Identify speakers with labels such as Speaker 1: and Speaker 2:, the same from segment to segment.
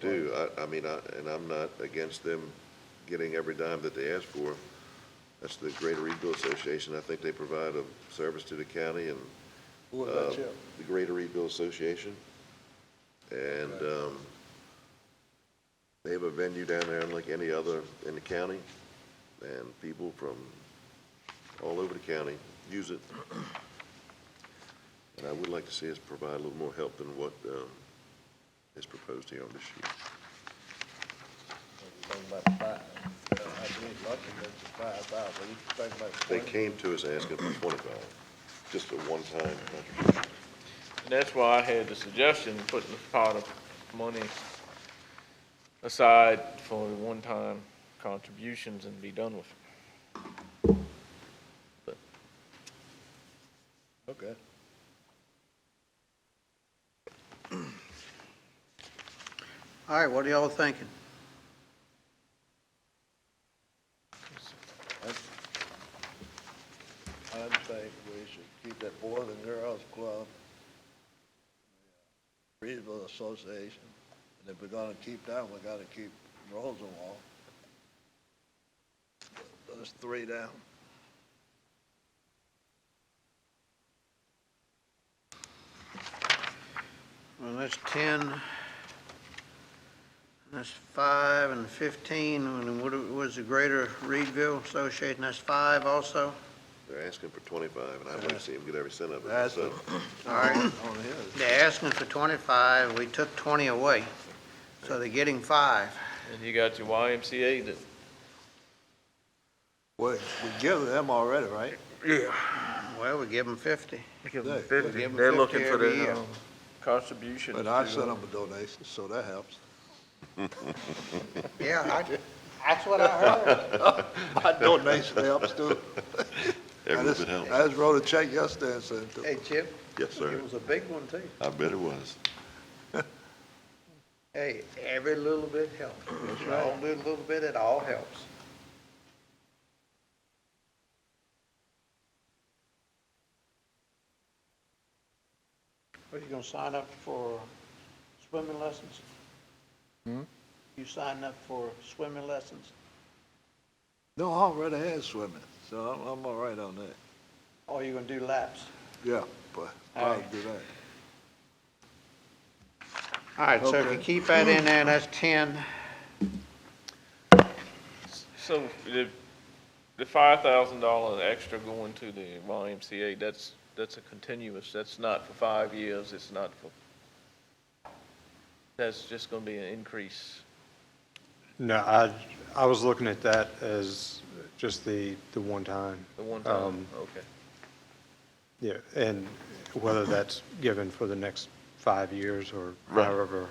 Speaker 1: do. I, I mean, I, and I'm not against them getting every dime that they ask for. That's the Greater Reedville Association. I think they provide a service to the county and,
Speaker 2: What
Speaker 1: uh,
Speaker 2: about you?
Speaker 1: the Greater Reedville Association. And, um, they have a venue down there unlike any other in the county, and people from all over the county use it. And I would like to see us provide a little more help than what, um, is proposed here on this sheet.
Speaker 2: Think about the five, uh, I believe London makes it five thousand, you think about
Speaker 1: They
Speaker 2: twenty.
Speaker 1: came to us asking for twenty-five, just a one-time contribution.
Speaker 3: That's why I had the suggestion, of putting a pot of money aside for one-time contributions and be done with it.
Speaker 2: Okay.
Speaker 4: All right, what are y'all thinking?
Speaker 2: I think we should keep that Boys and Girls Club, the Reedville Association, and if we're gonna keep that, we gotta keep Rosenwall. Those three down.
Speaker 4: Well, that's 10, and that's 5, and 15, and what was the Greater Reedville Association, that's 5 also?
Speaker 1: They're asking for twenty-five, and I'd like to see them get every cent of it,
Speaker 2: That's
Speaker 1: so.
Speaker 4: All right,
Speaker 2: On his.
Speaker 4: they're asking for 25, we took 20 away, so they're getting 5.
Speaker 3: And you got your YMCA that,
Speaker 2: We, we give them already, right?
Speaker 4: Well, we give them 50. We give 'em
Speaker 3: they're looking
Speaker 4: 50
Speaker 3: for
Speaker 4: every year.
Speaker 3: the um, contribution.
Speaker 2: But I
Speaker 3: to- uh,
Speaker 2: sent them a donation, so that helps.
Speaker 4: Yeah, I- that's what I heard.
Speaker 2: My donation helps too.
Speaker 1: Every
Speaker 2: I
Speaker 1: little
Speaker 2: just,
Speaker 1: bit helps.
Speaker 2: I just wrote a check yesterday and sent it to
Speaker 4: Hey, Chip?
Speaker 1: Yes, sir.
Speaker 4: It was a big one, too.
Speaker 1: I bet it was.
Speaker 4: Hey, every little bit helps. If you all do a little bit, it all helps. Are you gonna sign up for swimming lessons? Hmm? You signing up for swimming lessons?
Speaker 2: No, I already had swimming, so I'm, I'm all right on that.
Speaker 4: Or you gonna do laps?
Speaker 2: Yeah, but
Speaker 4: All
Speaker 2: I'll
Speaker 4: right.
Speaker 2: do that.
Speaker 4: All right, so if you
Speaker 2: Okay.
Speaker 4: keep that in there, that's ten.
Speaker 3: So the, the five thousand dollar extra going to the YMCA, that's, that's a continuous, that's not for five years, it's not for, that's just gonna be an increase.
Speaker 5: No, I, I was looking at that as just the, the one time.
Speaker 3: The one
Speaker 5: Um,
Speaker 3: time, okay.
Speaker 5: Yeah, and whether that's given for the next five years or
Speaker 1: Right.
Speaker 5: however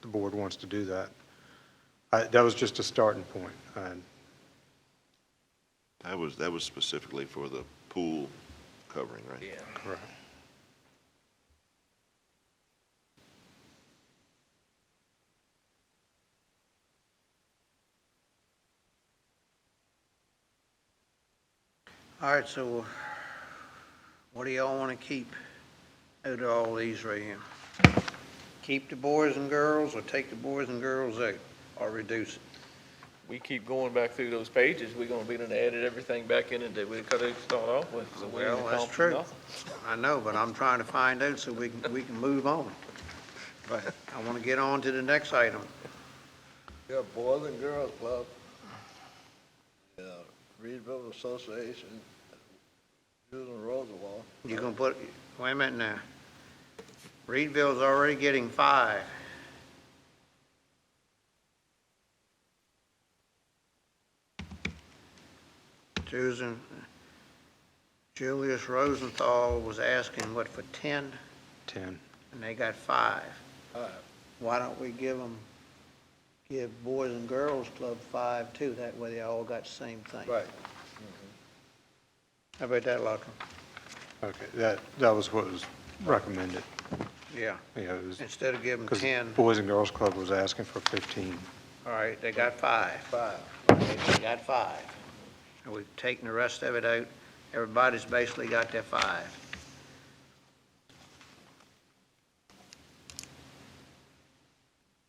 Speaker 5: the board wants to do that. I, that was just a starting point. And
Speaker 1: That was, that was specifically for the pool covering, right?
Speaker 3: Yeah.
Speaker 5: Correct.
Speaker 4: All right, so what do y'all want to keep out of all these right here? Keep the boys and girls, or take the boys and girls out, or reduce it?
Speaker 3: We keep going back through those pages, we're gonna be done edit everything back in and that we could have started off with, so we
Speaker 4: Well,
Speaker 3: didn't
Speaker 4: that's
Speaker 3: accomplish
Speaker 4: true.
Speaker 3: nothing.
Speaker 4: I know, but I'm trying to find out so we can, we can move on.
Speaker 2: Right.
Speaker 4: I want to get on to the next item.
Speaker 2: Yeah, Boys and Girls Club, yeah, Reedville Association, Susan Roosevelt.
Speaker 4: You're gonna put, wait a minute now. Reedville's already getting five. Susan, Julius Rosenthal was asking, what, for ten,
Speaker 5: 10.
Speaker 4: and they got five.
Speaker 2: Five.
Speaker 4: Why don't we give them, give Boys and Girls Club five too, that way they all got the same thing.
Speaker 2: Right,
Speaker 4: How about that, Lachlan?
Speaker 5: Okay, that, that was what was recommended.
Speaker 4: Yeah.
Speaker 5: You know, it was,
Speaker 4: Instead of giving
Speaker 5: because
Speaker 4: ten,
Speaker 5: Boys and Girls Club was asking for 15.
Speaker 4: all right, they got five.
Speaker 2: five.
Speaker 4: They got five. And we've taken the rest of it out. Everybody's basically got their five.